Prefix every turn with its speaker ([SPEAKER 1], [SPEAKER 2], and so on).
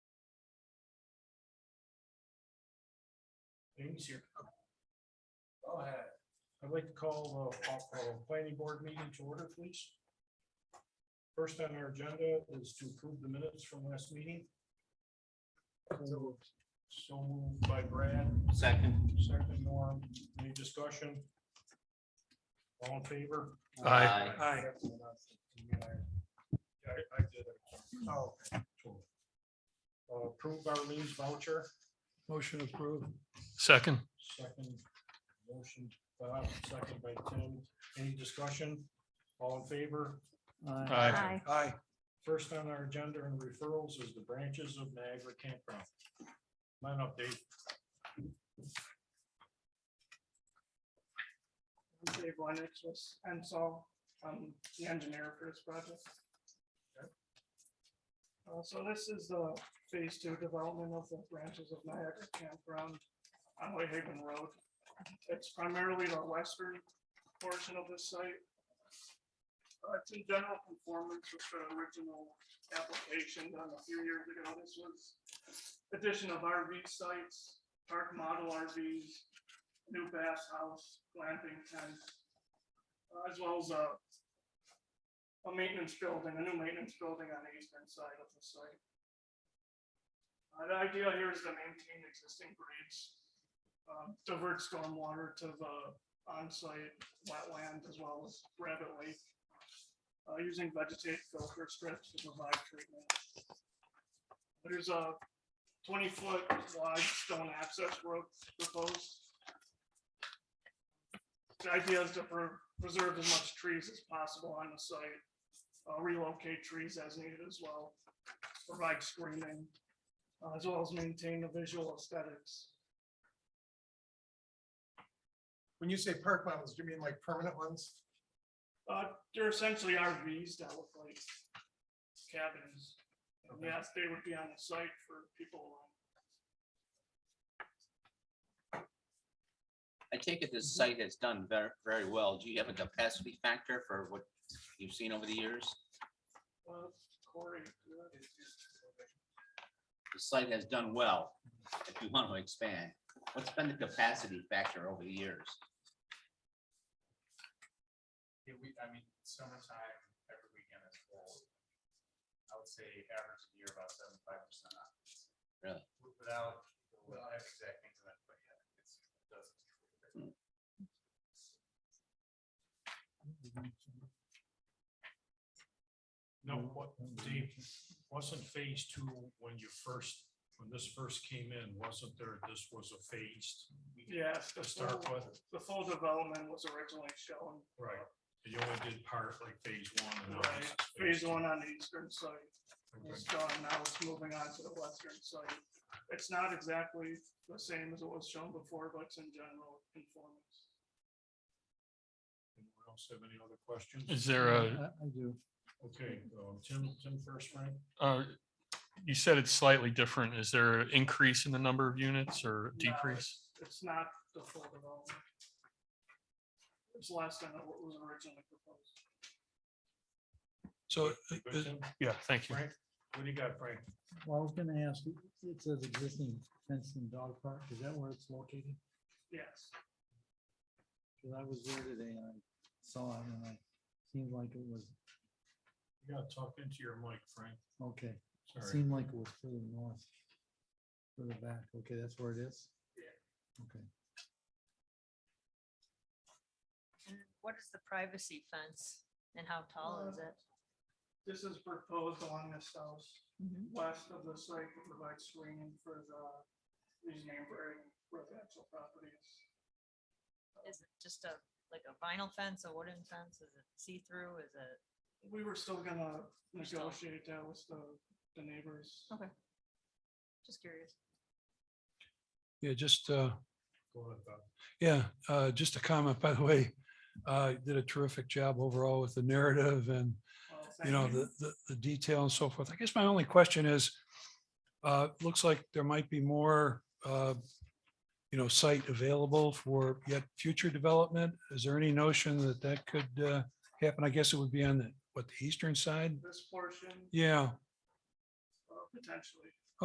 [SPEAKER 1] Jamie's here. Go ahead. I'd like to call the, uh, planning board meeting to order, please. First on our agenda is to approve the minutes from last meeting. So so moved by Brad,
[SPEAKER 2] Second.
[SPEAKER 1] second Norm, any discussion? All in favor?
[SPEAKER 2] Aye.
[SPEAKER 1] Aye. I did it. Oh. okay. Cool. Uh, Approve our leaves voucher,
[SPEAKER 3] Motion approved.
[SPEAKER 4] Second,
[SPEAKER 1] second motion, Bob, second by Tim. Any discussion? All in favor?
[SPEAKER 4] Aye.
[SPEAKER 5] Aye.
[SPEAKER 1] Aye. First on our agenda and referrals is the branches of Niagara Campground. Line update.
[SPEAKER 6] I'm Dave Lennox with Ensol, I'm the engineer for this project. Uh, so this is the phase two development of the branches of Niagara Campground on Whitehaven Road. It's primarily the western portion of this site. Uh, it's in general conformance with the original application done a few years ago. This was addition of RV sites, park model RVs, new bass house, glamping tent, uh, as well as a a maintenance building, a new maintenance building on the eastern side of the site. Uh, the idea here is to maintain existing grades, um, divert stormwater to the on-site wetland as well as rabbit lake. uh, using vegetative filter strips to provide treatment. There's a twenty-foot wide stone access road proposed. The idea is to pre- preserve as much trees as possible on the site, uh, relocate trees as needed as well, provide screening, uh, as well as maintain the visual aesthetics.
[SPEAKER 3] When you say park models, do you mean like permanent ones?
[SPEAKER 6] Uh, They're essentially RVs that look like cabins. And Yes, they would be on the site for people.
[SPEAKER 2] I take it this site has done very, very well. Do you have a capacity factor for what you've seen over the years?
[SPEAKER 6] uh, Corey, uh,
[SPEAKER 2] The site has done well, if you want to expand. What's been the capacity factor over the years?
[SPEAKER 7] Yeah, we, I mean, summertime, every weekend is full. I would say average year about seventy-five percent occupancy.
[SPEAKER 2] Really?
[SPEAKER 7] W- Without, well, I have exact things on it, but yeah, it's, it does.
[SPEAKER 1] No, what, Dave, wasn't phase two when you first, when this first came in, wasn't there, this was a phased
[SPEAKER 6] Yes.
[SPEAKER 1] to
[SPEAKER 6] the
[SPEAKER 1] start
[SPEAKER 6] full-
[SPEAKER 1] with?
[SPEAKER 6] The full development was originally shown.
[SPEAKER 1] Right, you only did part like phase one and now
[SPEAKER 6] Right,
[SPEAKER 1] it's
[SPEAKER 6] phase
[SPEAKER 1] two.
[SPEAKER 6] one on the eastern side.
[SPEAKER 1] Okay.
[SPEAKER 6] It's done, now it's moving on to the western side. It's not exactly the same as it was shown before, but it's in general conformance.
[SPEAKER 1] Anyone else have any other questions?
[SPEAKER 4] is there a,
[SPEAKER 3] I do.
[SPEAKER 1] Okay, um, Tim, Tim first, Frank?
[SPEAKER 4] uh, you said it's slightly different. Is there an increase in the number of units or
[SPEAKER 6] No,
[SPEAKER 4] decrease?
[SPEAKER 6] it's- It's not the full development. It's less than what was originally proposed.
[SPEAKER 4] So,
[SPEAKER 1] Good,
[SPEAKER 4] uh,
[SPEAKER 1] Tim?
[SPEAKER 4] yeah, thank you.
[SPEAKER 1] Frank, what do you got, Frank?
[SPEAKER 3] Well, I was gonna ask, it- it says existing fenced and dog park, is that where it's located?
[SPEAKER 6] Yes,
[SPEAKER 3] Cause I was there today and I saw it and I seemed like it was,
[SPEAKER 1] You gotta talk into your mic, Frank,
[SPEAKER 3] okay, it
[SPEAKER 1] sorry.
[SPEAKER 3] seemed like it was further north. Further back, okay, that's where it is? Yeah. Okay,
[SPEAKER 5] And What is the privacy fence and how tall is it?
[SPEAKER 6] this is proposed along this house, west of the site to provide screening for the, these neighboring residential properties.
[SPEAKER 5] Is it just a, like a vinyl fence, a wooden fence? Is it see-through? Is it?
[SPEAKER 6] We were still gonna
[SPEAKER 5] We're still-
[SPEAKER 6] negotiate that with the, the neighbors.
[SPEAKER 5] Okay. Just curious.
[SPEAKER 8] Yeah, just, uh,
[SPEAKER 1] Go ahead, Bob.
[SPEAKER 8] yeah, uh, just a comment, by the way. Uh, did a terrific job overall with the narrative and,
[SPEAKER 6] Well,
[SPEAKER 8] you
[SPEAKER 6] Uh, thank
[SPEAKER 8] know, the, the, the detail and so forth. I guess my only question is, uh, looks like there might be more, uh, you know, site available for yet future development. Is there any notion that that could, uh, happen? I guess it would be on the, what, the eastern side?
[SPEAKER 6] This portion,
[SPEAKER 8] Yeah,
[SPEAKER 6] uh, potentially,